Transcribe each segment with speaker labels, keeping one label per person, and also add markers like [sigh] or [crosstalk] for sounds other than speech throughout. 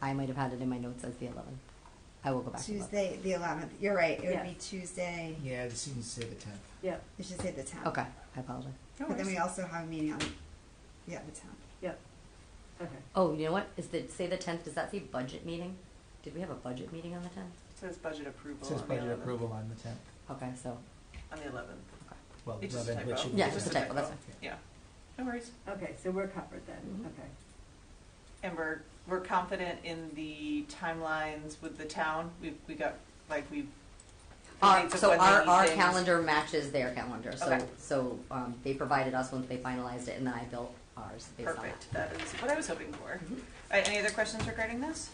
Speaker 1: I might have had it in my notes as the 11th. I will go back. and look.
Speaker 2: Tuesday, the eleventh, you're right, it
Speaker 3: Yeah.
Speaker 2: would be Tuesday,
Speaker 4: Yeah, it seems to say the tenth.
Speaker 3: Yep.
Speaker 2: it should say the tenth.
Speaker 1: Okay, I apologize.
Speaker 2: But then we also have a meeting on, yeah, the tenth.
Speaker 3: Yep. Okay.
Speaker 1: Oh, you know what? Is the say the 10th? Does that say budget meeting? Did we have a budget meeting on the 10th?
Speaker 5: It says budget approval.
Speaker 4: It says
Speaker 5: on the
Speaker 4: budget
Speaker 5: 11th.
Speaker 4: approval on the tenth.
Speaker 1: Okay, so
Speaker 5: On the eleventh.
Speaker 4: Well,
Speaker 5: It's just a
Speaker 4: eleven, which
Speaker 5: typo.
Speaker 4: should be.
Speaker 1: yeah,
Speaker 4: the
Speaker 1: it's a
Speaker 4: 10th.
Speaker 1: typo. That's fine.
Speaker 5: Yeah, no worries.
Speaker 3: Okay, so we're covered then,
Speaker 1: Mhm.
Speaker 6: Mm-hmm.
Speaker 3: okay.
Speaker 5: And we're, we're confident in the timelines with the town. We've, we got, like, we've. the
Speaker 1: Our,
Speaker 5: dates of
Speaker 1: so
Speaker 5: when
Speaker 1: our,
Speaker 5: they need
Speaker 1: our
Speaker 5: things.
Speaker 1: calendar matches their calendar. So
Speaker 5: Okay.
Speaker 1: so um, they provided us once they finalized it, and then I built ours based
Speaker 5: Perfect, that is what I was hoping for.
Speaker 1: Mhm.
Speaker 5: All right, any other questions regarding this?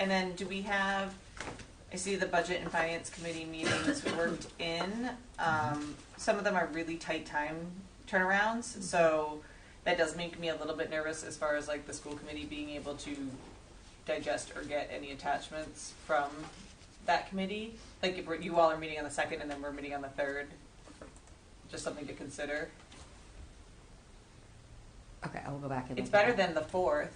Speaker 5: And then do we have, I see the budget and finance committee meetings worked in. Um, Some of them are really tight time turnarounds, so that does make me a little bit nervous as far as like the school committee being able to digest or get any attachments from that committee. Like if we're- you all are meeting on the second and then we're meeting on the third, just something to consider.
Speaker 1: on that. Okay, I will go back and.
Speaker 5: It's
Speaker 1: look at
Speaker 5: better
Speaker 1: that.
Speaker 5: than the fourth.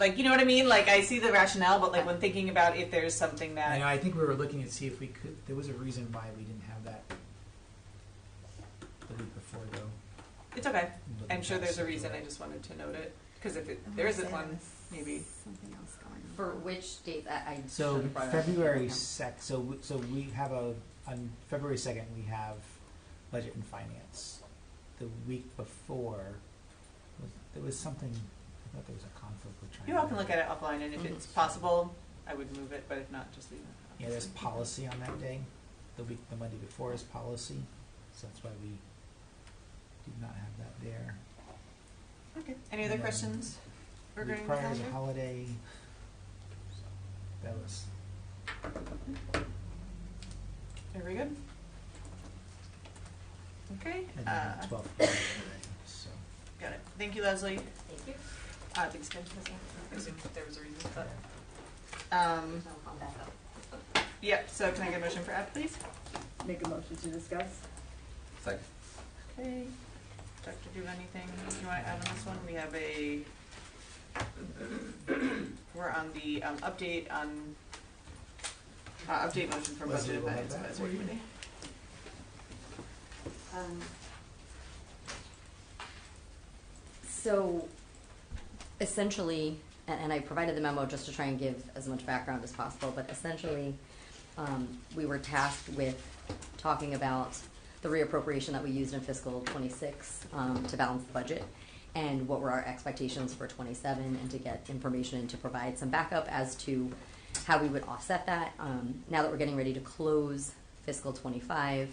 Speaker 5: Like, you know what I mean? Like, I see the rationale, but like when thinking about if there's something
Speaker 4: I know,
Speaker 5: that
Speaker 4: I think we were looking at see if we could, there was a reason why we didn't have that the week before though.
Speaker 5: it's okay.
Speaker 4: looking
Speaker 5: I'm sure
Speaker 4: at
Speaker 5: there's a
Speaker 4: schedule.
Speaker 5: reason. I just wanted to note it because if it,
Speaker 2: I'm
Speaker 5: there
Speaker 2: gonna
Speaker 5: isn't
Speaker 2: say
Speaker 5: one,
Speaker 2: there's
Speaker 5: maybe.
Speaker 2: Something else going on.
Speaker 1: For which date? I, I
Speaker 4: So
Speaker 1: should've brought it up.
Speaker 4: February
Speaker 1: Okay.
Speaker 4: sec, so, w- so we have a, on February second, we have budget and finance. The week before, was, there was something, I thought there was a conflict with trying.
Speaker 5: You all can look at it offline, and if
Speaker 1: Mhm.
Speaker 5: it's possible, I would move it. But if not, just leave it.
Speaker 4: Yeah, there's policy on that day, the week, the Monday before is policy, so that's why we did not have that there.
Speaker 5: Okay. Any other
Speaker 4: Yeah.
Speaker 5: questions
Speaker 4: Week
Speaker 5: regarding the
Speaker 4: Prior is
Speaker 5: calendar?
Speaker 4: a holiday. So That was,
Speaker 5: Are we good? Okay.
Speaker 4: and
Speaker 5: Uh,
Speaker 4: then the twelfth, was a holiday, so.
Speaker 5: got it. Thank you, Leslie.
Speaker 1: Thank you.
Speaker 5: Uh, thanks, Kim. I assumed there was a reason,
Speaker 2: Oh.
Speaker 5: but um,
Speaker 1: I'll come back up.
Speaker 5: yep. So can I get a motion for app, please?
Speaker 3: Make a motion to discuss?
Speaker 7: Second.
Speaker 5: Okay, Dr. Do anything you want to add on this one? We have a, [coughs] we're on the um, update on, uh, update motion for
Speaker 4: Leslie
Speaker 5: budget and
Speaker 4: will have
Speaker 5: finance
Speaker 4: that
Speaker 5: advisory
Speaker 4: for you.
Speaker 5: committee.
Speaker 1: Um, So essentially, and, and I provided the memo just to try and give as much background as possible, but essentially, um, we were tasked with talking about the reappropriation that we used in fiscal twenty-six, um, to balance the budget and what were our expectations for twenty-seven and to get information and to provide some backup as to how we would offset that. Um, now that we're getting ready to close fiscal twenty-five,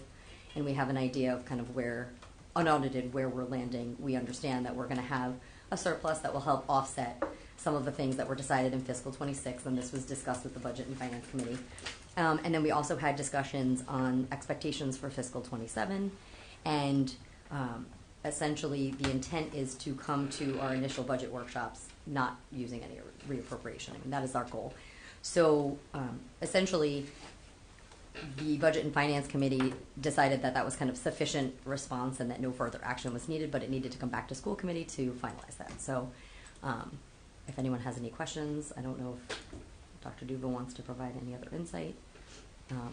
Speaker 1: and we have an idea of kind of where, unaudited, where we're landing, we understand that we're gonna have a surplus that will help offset some of the things that were decided in fiscal twenty-six, and this was discussed with the Budget and Finance Committee. Um, and then we also had discussions on expectations for fiscal twenty-seven, and, um, essentially, the intent is to come to our initial budget workshops not using any reappropriation, I mean, that is our goal. So, um, essentially, the Budget and Finance Committee decided that that was kind of sufficient response and that no further action was needed, but it needed to come back to school committee to finalize that. So, um, if anyone has any questions, I don't know if Dr. Duba wants to provide any other insight. Um,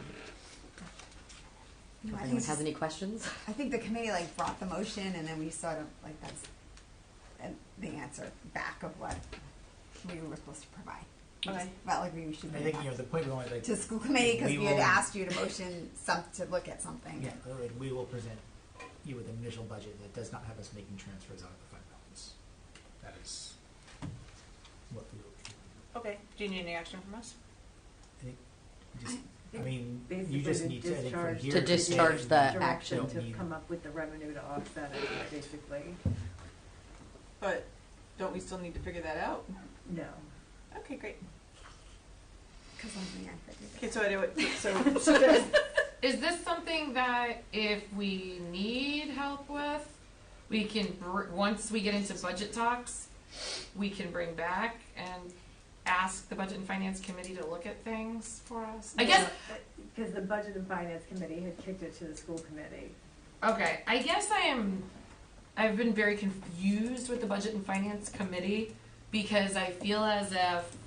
Speaker 1: if
Speaker 2: No, I think
Speaker 1: anyone
Speaker 2: it's
Speaker 1: has
Speaker 2: just-
Speaker 1: any questions,
Speaker 2: I think the committee like brought the motion and then we sort of like that's and the answer back of what we were supposed to provide. We just
Speaker 5: Okay.
Speaker 2: Felt like we should.
Speaker 4: I
Speaker 2: bring
Speaker 4: think,
Speaker 2: it
Speaker 4: you know,
Speaker 2: back
Speaker 4: the point we wanted, like,
Speaker 2: To school committee because
Speaker 4: We
Speaker 2: we had
Speaker 4: will-
Speaker 2: asked you to motion some, to look at something.
Speaker 4: yeah, like, we will present you with an initial budget that does not have us making transfers out of the fund balance. That is what we will,
Speaker 5: Okay, do you need any action from us?
Speaker 4: just, I mean, you
Speaker 3: Basically
Speaker 4: just
Speaker 3: to
Speaker 4: need to, I think, from
Speaker 3: discharge-
Speaker 4: here.
Speaker 1: To
Speaker 4: say
Speaker 1: discharge
Speaker 4: that
Speaker 1: the
Speaker 4: you don't
Speaker 3: Direction to
Speaker 4: need-
Speaker 3: come up with the revenue to offset it, basically.
Speaker 5: But don't we still need to figure that out?
Speaker 3: No.
Speaker 5: Okay, great.
Speaker 2: Because something I figured.
Speaker 5: Okay, so I do it, so, so
Speaker 6: Is this something that if we need help with, we can, br- once we get into budget talks, we can bring back and ask the Budget and Finance Committee to look at things for us? I guess,
Speaker 3: Because the Budget and Finance Committee had kicked it to the school committee.
Speaker 6: okay, I guess I am, I've been very confused with the Budget and Finance Committee because I feel as if